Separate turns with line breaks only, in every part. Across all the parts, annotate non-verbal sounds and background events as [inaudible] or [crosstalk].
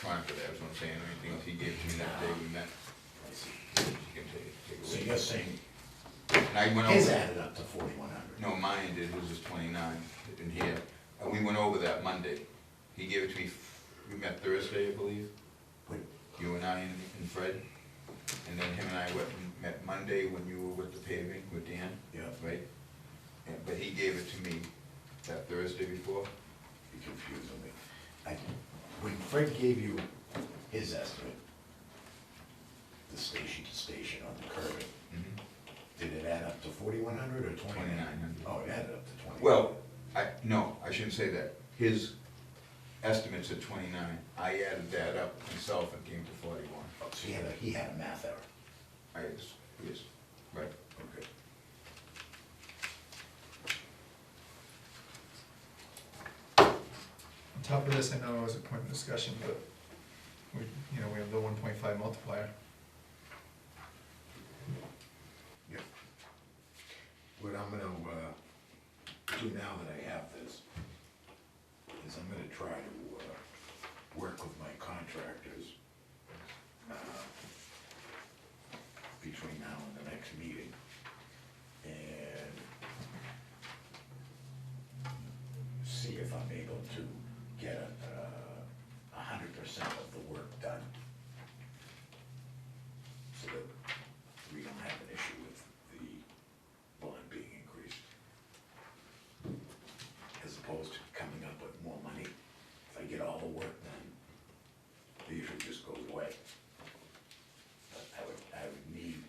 time for that, is what I'm saying, I mean, things he gave to me that day we met. You can take- take
So
away.
you're saying
And I went
his
over,
added up to forty-one hundred?
no, mine did, his was twenty-nine in here, and uh, we went over that Monday. He gave it to me, f- we met Thursday, I believe, you and I and and Fred, and then him and I went, and met Monday when you were with the paving with Dan.
Yeah,
right? And, but he gave it to me that Thursday before.
you're confusing me. I, when Fred gave you his estimate, the station to station on the curve,
Mm-hmm.
did it add up to forty-one hundred or twenty-nine?
2,900.
Oh, it added up to twenty.
Well, I, no, I shouldn't say that. His estimates at twenty-nine, I added that up myself and came to forty-one.
So he had a, he had a math error.
I, yes, yes, right.
Okay.
On top of this, I know it was a point of discussion, but we, you know, we have the one point five multiplier.
Yeah. What I'm gonna, uh, do now that I have this, is I'm gonna try to, uh, work with my contractors, uh, between now and the next meeting, and see if I'm able to get a, uh, a hundred percent of the work done. So that we don't have an issue with the bond being increased. As opposed to coming up with more money, if I get all the work done, the issue just goes away. But I would, I would need,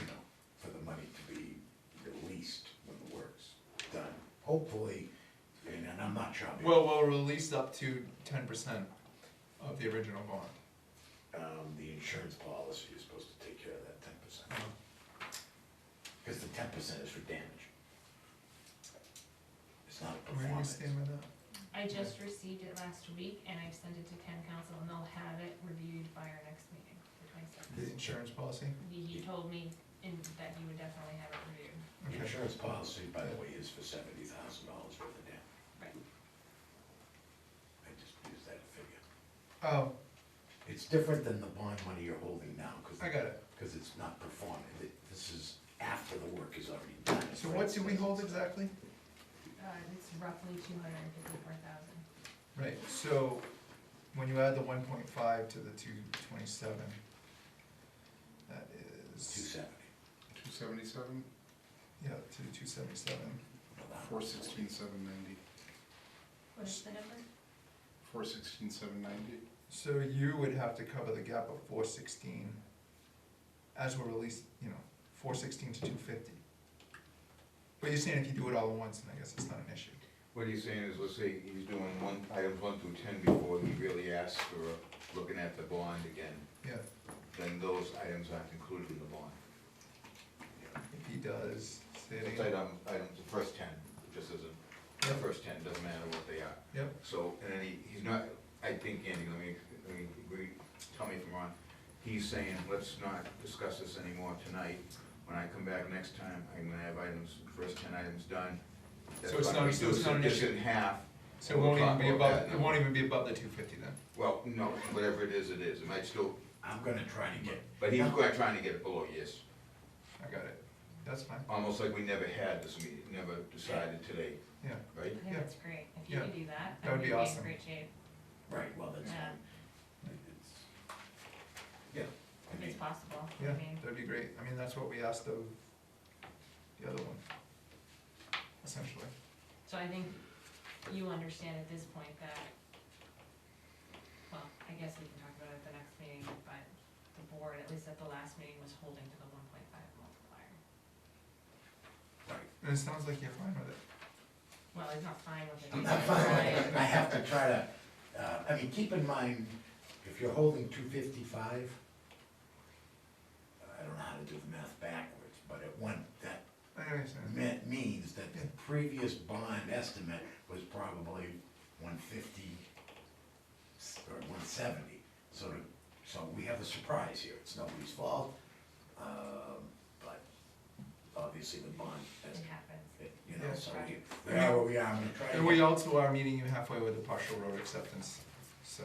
you know, for the money to be released when the work's done, hopefully, and and I'm not sure. I'll be-
Well, we'll release up to ten percent of the original bond.
um, the insurance policy is supposed to take care of that ten percent. Cause the ten percent is for damage. It's not a
Where do we
performance.
stand with that?
I just received it last week and I've sent it to town council and they'll have it reviewed by our next meeting, the twenty-seventh.
The insurance policy?
He, he told me in, that he would definitely have it reviewed.
The
Okay.
insurance policy, by the way, is for seventy thousand dollars for the dam.
Right.
I just used that figure.
Oh,
It's different than the bond money you're holding now, cause.
I got it.
Cause it's not performing, Th- this is after the work is already done.
So what do we hold exactly?
Uh, it's roughly two hundred and fifty-four thousand.
Right, so when you add the one point five to the two twenty-seven, that
Two
is,
seventy.
Two seventy-seven,
yeah, to the two seventy-seven.
four sixteen, seven ninety,
What is the number?
four sixteen, seven ninety.
So you would have to cover the gap of four sixteen as we're released, you know, four sixteen to two fifty. But you're saying if you do it all at once, then I guess it's not an issue.
What he's saying is, let's say he's doing one, items one through ten before he really asks for looking at the bond again,
Yeah,
then those items aren't included in the bond.
if he does, say it
It's
again.
item, items, the first ten, just as a, the first ten, doesn't matter what they are.
Yep,
So, and then he, he's not, I think, Andy, let me, let me, agree- tell me if I'm wrong, he's saying, let's not discuss this anymore tonight. When I come back next time, I'm gonna have items, first ten items done. That's
So it's
gonna
not- so it's
reduce
not an
this
issue.
in half.
so it
and we'll
won't even
talk
be
about
above,
that
it
now.
won't even be above the two fifty then.
Well, no, whatever it is, it is, it might still,
I'm gonna try to get.
but he's quite trying to get it below, yes.
I got it. That's fine,
Almost like we never had this meeting, never decided today,
yeah.
right?
I think
Yeah.
that's great. If you
Yeah.
could do that,
That
that
would
would be
be awesome.
in great shape.
Right, well, that's,
Yeah.
it's, yeah, I
If
mean,
it's possible. I
Yeah,
mean,
that'd be great. I mean, that's what we asked of the other one, essentially.
So I think you understand at this point that, well, I guess we can talk about it at the next meeting, but the board, at least at the last meeting, was holding to the one point five multiplier.
right.
And it sounds like you're fine with it.
Well, he's not fine with it.
[laughs] I'm not fine with it. I have to try to, uh, I mean, keep in mind, if you're holding two fifty-five, I don't know how to do the math backwards, but at one, that
I understand.
meant, means that the previous bond estimate was probably one fifty or one seventy. So, to- so we have a surprise here, it's nobody's fault, um, but obviously the bond,
It
estimate,
happens.
you know,
Yeah.
so we, we are where we are, I'm gonna try to.
And
get-
we also are meeting you halfway with the partial road acceptance, so